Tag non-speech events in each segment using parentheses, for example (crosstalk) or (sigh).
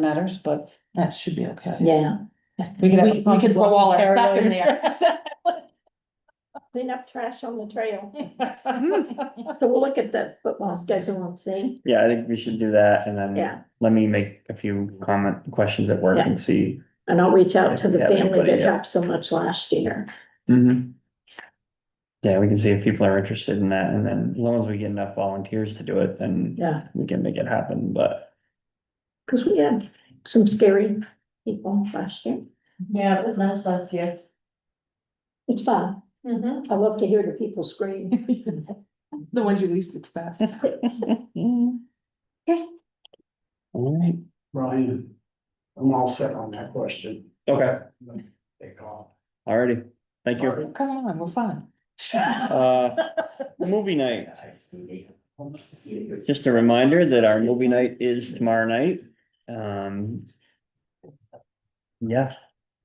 matters, but That should be okay. yeah. We could have. We, we could throw all our stuff in there. (laughs) (laughs) Clean up trash on the trail. Mm-hmm. So we'll look at the football schedule and see. Yeah, I think we should do that and Yeah. then let me make a few comment, questions at work and see. And I'll reach out to the Yeah, family everybody, that yeah. helped so much last year. Mhm. Yeah, we can see if people are interested in that and then as long as we get enough volunteers to do it, then Yeah, we can make it happen, but. because we had some scary people last year. Yeah, it was nice last year. It's fun. Mm-hmm. I love to hear the people (laughs) scream. The ones you least (laughs) expect. All right, Brian, I'm all set on that question. okay, They call. all righty. thank you. Come on, we're fun. (laughs) Uh, movie night. Just a reminder that our movie night is tomorrow night. Um. Yeah,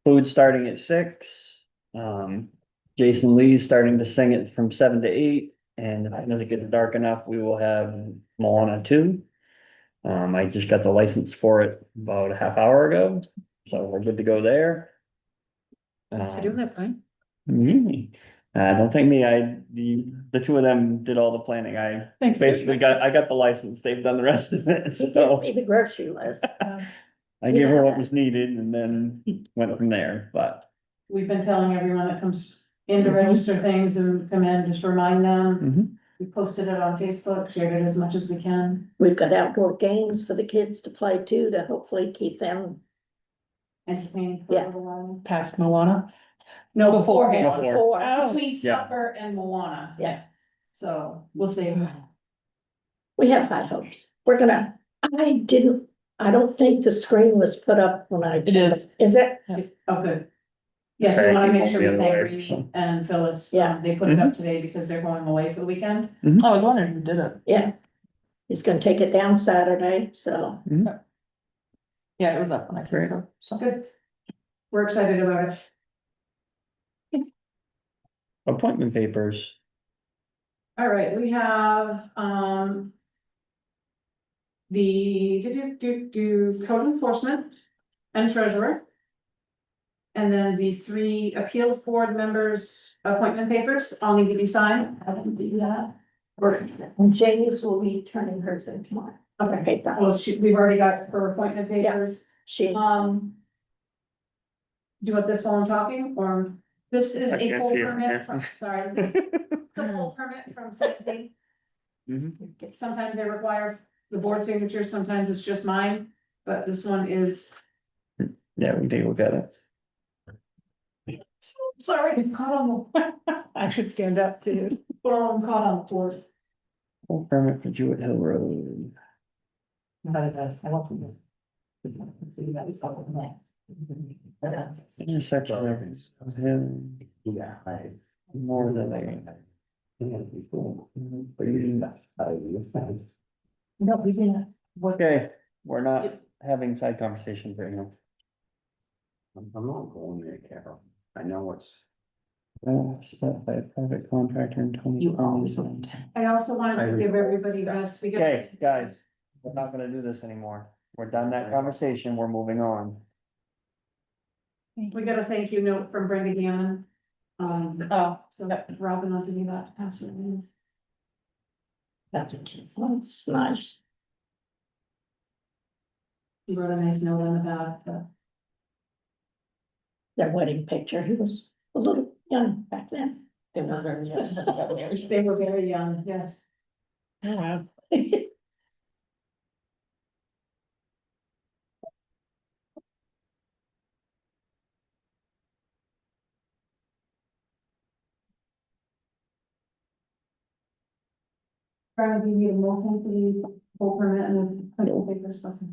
food starting at six. Um, Jason Lee's starting to sing it from seven to eight. And if it doesn't get dark enough, we will have Moana two. Um, I just got the license for it about a half hour ago, so we're good to go there. Thanks for doing Um, that, Brian. Mm. Uh, don't thank me, I, the, the two of them did all the planning, I Thanks. basically got, I got the license, they've done the rest of it, (laughs) He gave so. me the grocery list. I gave her what was needed and then went from there, but. We've been telling everyone that comes in to register things and come in, just remind them. Mhm. We posted it on Facebook, shared it as much as we can. We've got outdoor games for the kids to play too, to hopefully keep them. Entertained for Yeah. a little while. Past Moana. No, beforehand. Before. Before. Between Yeah. supper and Moana. Yeah. So we'll see. We have high hopes. We're gonna, I didn't, I don't think the screen was put up when I. It is. Is it? Oh, good. Yes, Sorry, we I wanna keep make sure going we the other thank way, Reed so. and Phyllis. um, Yeah. Mm-hmm. They put it up today because they're going away for the weekend. I was wondering who did it. Yeah. He's gonna take it down Saturday, so Yeah, it was up when I came Great. over, so. Good. We're excited about it. Appointment papers, All right, we have, um. The, do, do, do, do code enforcement and treasurer. And then the three appeals board members' appointment papers all need to be signed. I will do that. Or- And Jamie's will be turning hers in tomorrow. Okay, Okay, that was, well, she, we've already got her appointment papers, she, um. Do you want this while I'm talking, or this is I a can't full see it, yeah. (laughs) permit from, sorry, this- it's a full permit from something. Sometimes they require the board signature, sometimes it's just mine, but this one is, yeah, we can take a look at it. sorry, (laughs) caught on the, I should stand up too. boom, caught on the board. Full permit for Jewett Hill Road. uh, Intersection of Hill, Yeah. I- more than they. Mm-hmm. No, we didn't. What? Okay, we're not having side conversations right now. I'm I'm not going there, Carol. I know it's. Uh, Set by a private contractor in twenty. You always went. I also wanted to I- give everybody this, we got, Okay, guys, we're not gonna do this anymore. We're done that conversation. We're moving on. we got a thank you note from Brenda Gammon. Um, Oh, so Robin, I'll give you that, pass it on. that's a cute one, it's nice. She wrote a nice note on the back, but Their wedding picture, he was a little young back then. they were very young. they were very young, yes. Wow. Brian, do you need a motion for the full permit and the appointment papers? Okay.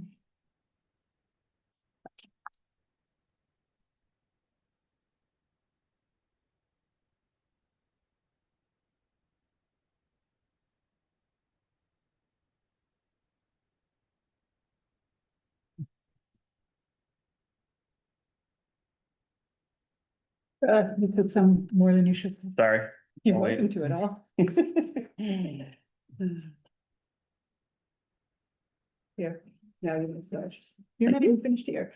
Uh, you took some more than you should. Sorry. (laughs) You're Oh, wait. welcome to it all. (laughs) Here. No, you didn't start. You're not even finished here.